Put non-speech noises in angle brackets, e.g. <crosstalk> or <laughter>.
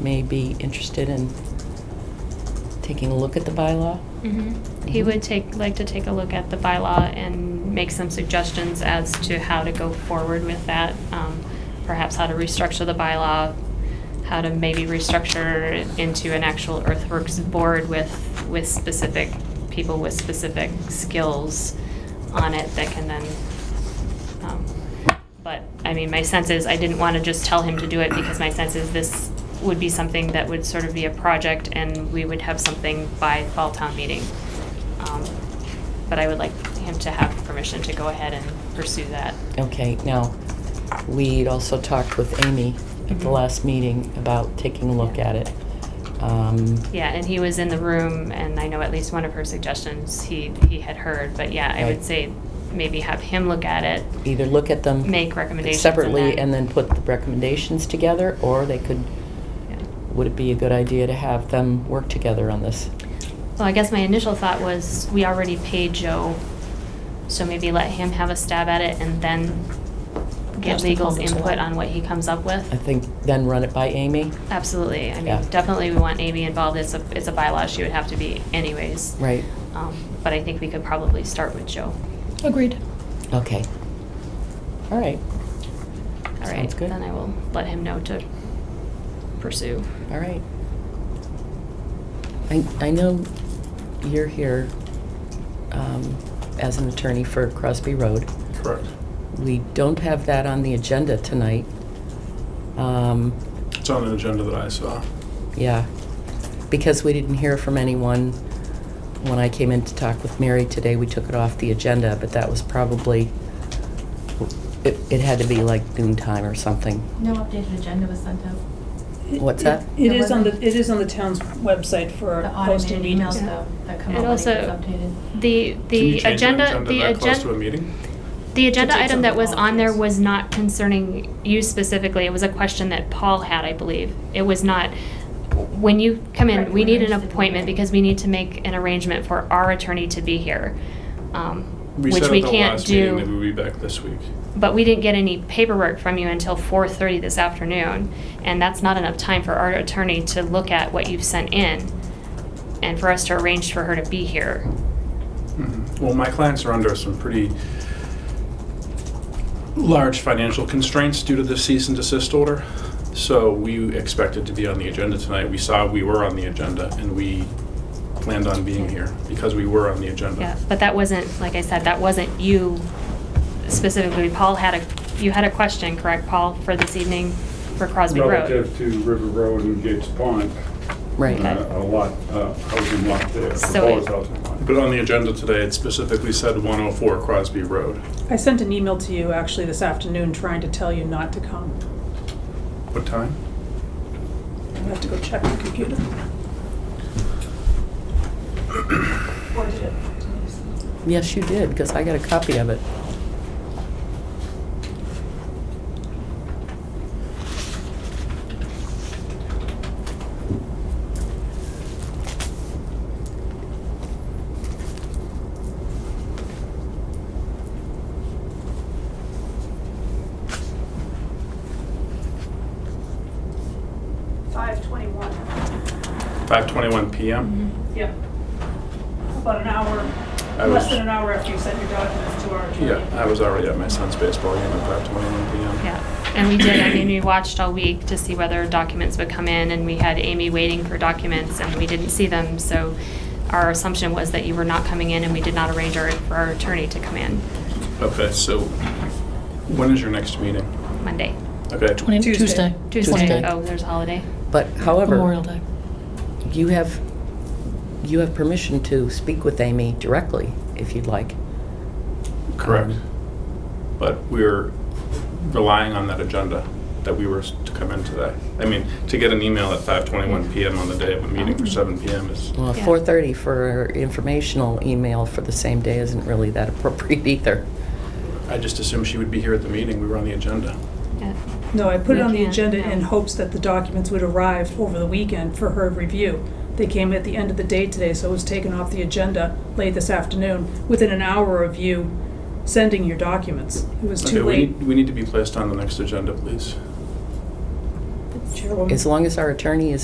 may be interested in taking a look at the bylaw. Mhm. He would take, like to take a look at the bylaw and make some suggestions as to how to go forward with that. Um, Perhaps how to restructure the bylaw, how to maybe restructure it into an actual earthworks board with, with specific people with specific skills on it that can then, um, but, I mean, my sense is, I didn't want to just tell him to do it because my sense is this would be something that would sort of be a project and we would have something by fall town meeting. Um, But I would like him to have permission to go ahead and pursue that. Okay, now, we'd also talked with Amy at the Mhm. last meeting about taking a look at it. Um, Yeah, and he was in the room and I know at least one of her suggestions he, he had heard, but yeah, I Right. would say maybe have him look at it, Either look at them. make recommendations. Separately, and then put the recommendations together, or they could, Yeah. would it be a good idea to have them work together on this? Well, I guess my initial thought was, we already paid Joe, so maybe let him have a stab at it and then get Ask the legal's comments input along. on what he comes up I with. think then run it by Amy, Absolutely, I Yeah. mean, definitely we want Amy involved, it's a, it's a bylaw, she would have to be anyways. right? Um, But I think we could probably start with Joe. Agreed. Okay. All right, All right, Sounds good. Then I will let him know to pursue. all right. I, I know you're here um, as an attorney for Crosby Road. Correct. We don't have that on the agenda tonight. Um, It's on an agenda that I saw. Yeah, because we didn't hear from anyone when I came in to talk with Mary today, we took it off the agenda, but that was probably, it, it had to be like noon time or something. No updated agenda was sent out. What's that? It is on the, it is on the town's website for The posting automated meetings. emails though, that come And out when it also- gets updated. The, Can you the change an agenda, the that close to a agenda, meeting? the agenda To take item that something was on there off, yes. was not concerning you specifically, it was a question that Paul had, I believe. It was not, when you come in, Correct, we we're need an interested in appointment that. because we need to make an arrangement for our attorney to be here. um, Which said we at the can't last meeting that do. We'll be back this week. But we didn't get any paperwork from you until 4:30 this afternoon, and that's not enough time for our attorney to look at what you've sent in and for us to arrange for her to be here. Mhm. Mm-hmm. Well, my clients are under some pretty large financial constraints due to the cease and desist order. So we expected to be on the agenda tonight. We saw we were on the agenda and we planned on being here because we were on the agenda. Yeah, but that wasn't, like I said, that wasn't you specifically. Paul had a, you had a question, correct, Paul, for this evening for Crosby Road? Relative to River Road and Gates Pond, Right, Okay. uh, a lot, uh, housing lot there, So it- proposed housing lot. But on the agenda today, it specifically said 104 Crosby Road. I sent an email to you actually this afternoon trying to tell you not to come. What time? I have to go check my computer. yes, you did, because I got a copy of it. Five twenty-one, 5:21 PM? yeah. About an I hour, was- less than an hour after you sent your documents to our Yeah, attorney. I was already at my son's baseball game at 5:21 PM. Yeah, and we did, I mean, we watched all week to see whether documents would come in, and we had Amy waiting for documents, and we didn't see them, so our assumption was that you were not coming in, and we did not arrange our, for our attorney to come in Okay, so when is your next meeting? Monday, Okay, tw- Tuesday. Tuesday. Oh, there's a holiday. But Memorial however, Day. you have, you have permission to speak with Amy directly, if you'd like. correct. But we're relying on that agenda that we were s- to come in today. I mean, to get an email at 5:21 PM on the day of a meeting for 7 PM is, Well, Yeah. 4:30 for informational email for the same day isn't really that appropriate <laughs> either. I just assumed she would be here at the meeting, we were on the agenda. Yeah. No, I put it We on the can't, agenda no. in hopes that the documents would arrive over the weekend for her review. They came at the end of the day today, so it was taken off the agenda late this afternoon, within an hour of you sending your documents. It was Okay, too we late. need- We need to be placed on the next agenda, please. Sure. Chairwoman. as long as our attorney is